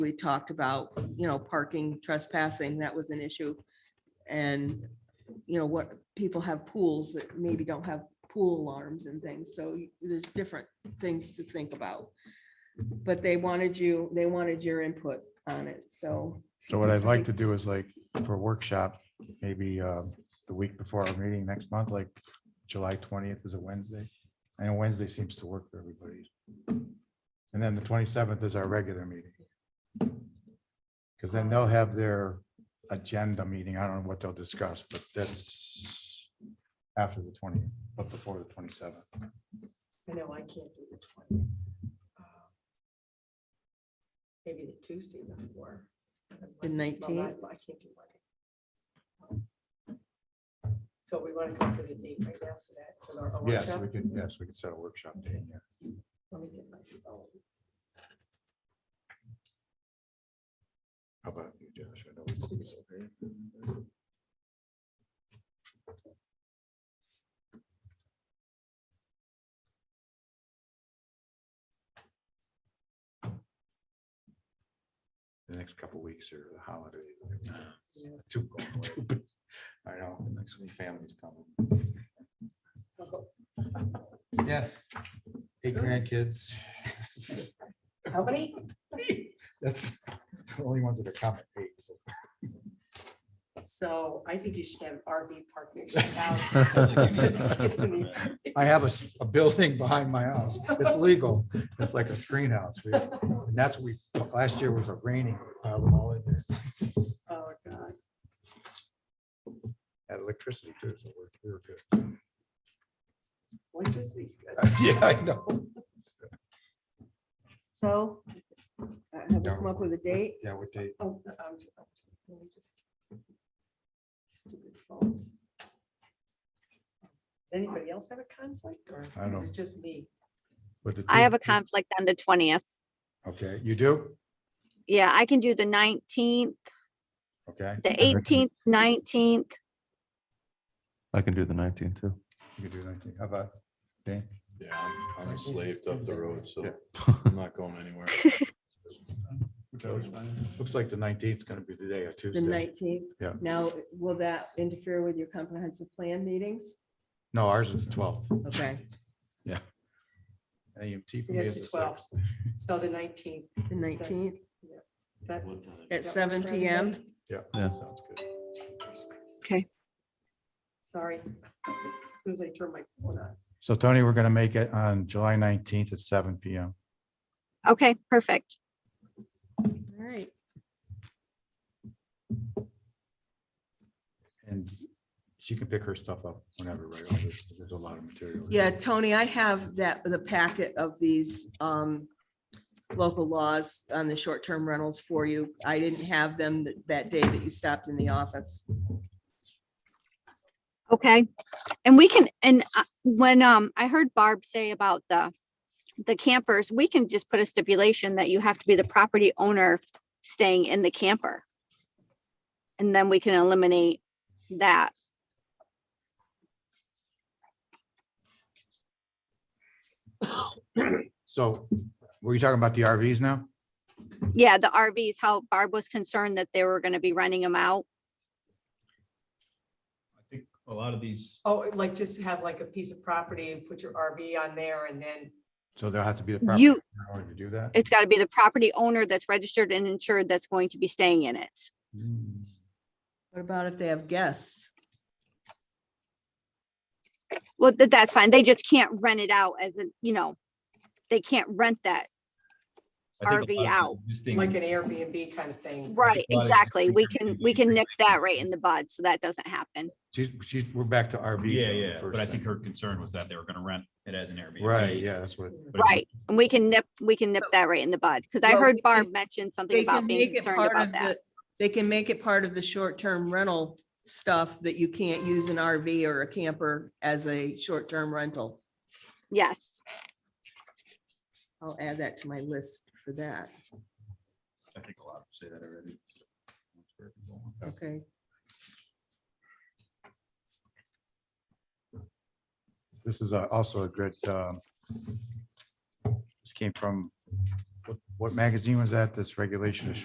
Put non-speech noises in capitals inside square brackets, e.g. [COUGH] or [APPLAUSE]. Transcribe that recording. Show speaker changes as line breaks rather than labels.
we talked about, you know, parking trespassing, that was an issue. And, you know, what, people have pools that maybe don't have pool alarms and things, so there's different things to think about. But they wanted you, they wanted your input on it, so.
So what I'd like to do is like for workshop, maybe uh, the week before our meeting next month, like July twentieth is a Wednesday. And Wednesday seems to work for everybody. And then the twenty-seventh is our regular meeting. Because then they'll have their agenda meeting. I don't know what they'll discuss, but that's after the twentieth, but before the twenty-seventh.
I know I can't do the twenty. Um, Maybe the Tuesday before.
The
Well, I-
19th?
I can't do Monday. So we want to come to the date right now for that, for our- our
Yes,
workshop.
we could, yes, we could set a workshop date. yeah.
Let me get my phone.
How about you, Josh? I know we did this over here. The next couple weeks are the holidays. like, it's
Yeah.
too cold. I know, next week family's coming. Yeah. Eight grandkids.
How many?
That's [LAUGHS] the only ones that are coming. eight, so.
So I think you should have an RV park next to your house.
I have a, s- a building [LAUGHS] behind my house. It's legal. It's like a screen house. We- And that's what we, last year was a raining, piled them all in there.
Oh, God.
Had electricity too, so we're, we were good. [LAUGHS]
What this week's good.
Yeah, I know.
So. uh, Have we come up with a date?
Yeah, what date?
Oh, the- I'm, I'm, let me just. Stupid phones. Does anybody else have a conflict or
I
is
don't.
it just me?
With the
I have a
Tuesday?
conflict on the twentieth.
Okay, you do?
Yeah, I can do the nineteenth,
Okay,
the eighteenth, nineteenth.
I can do the nineteenth too.
you can do that. How about Dan?
Yeah, I'm- I'm enslaved up the road, so
Yeah.
I'm not going anywhere.
Looks like the nineteenth is gonna be the day of
The
Tuesday.
nineteenth?
Yeah.
Now, will that interfere with your comprehensive plan meetings?
No, ours is the twelfth.
Okay,
AMT for me
Yes,
is
the
the
12th.
sixth.
So the nineteenth.
the nineteenth
That
at
that
seven
work for
PM.
everybody?
Yeah.
Yeah.
Sounds good.
Jesus Christ.
Okay.
Sorry. As soon as I turn my phone on.
So Tony, we're gonna make it on July nineteenth at seven PM.
Okay, perfect.
All right.
And she can pick her stuff up whenever, right? There's there's a lot of material.
Yeah, Tony, I have that, the packet of these um, local laws on the short-term rentals for you. I didn't have them th- that day that you stopped in the office.
Okay. And we can, and uh, when, um, I heard Barb say about the, the campers, we can just put a stipulation that you have to be the property owner staying in the camper. And then we can eliminate that.
So were you talking about the RVs now?
Yeah, the RVs, how Barb was concerned that they were going to be renting them out.
I think a lot of these,
Oh, like just have like a piece of property and put your RV on there and then
So there'll have to be the. property
You,
owner To do that?
it's got to be the property owner that's registered and insured that's going to be staying in it.
What about if they have guests?
Well, th- that's fine. They just can't rent it out as a, you know, they can't rent that.
I think a
RV
lot of the
out.
existing-
like an Airbnb kind of thing.
Right,
lot of
exactly. We can,
different
we can nick
configurations.
that right in the bud, so that doesn't happen.
She's, she's, we're back to RVs.
Yeah,
on the
yeah,
first
but I
thing.
think her concern was that they were gonna rent it as an Airbnb.
Right, yeah, that's what,
But if you-
Right, and we can nip, we can nip that right in the bud, because I
Well,
heard
we
Barb
can-
mention something
They
about
can
being
make it
concerned
part
about
of
that.
the. They can make it part of the short-term rental stuff that you can't use an RV or a camper as a short-term rental.
Yes,
I'll add that to my list for that.
I think a lot of them say that already.
Okay.
this is uh, also a good, um, this came from, what- What magazine was that? This regulation is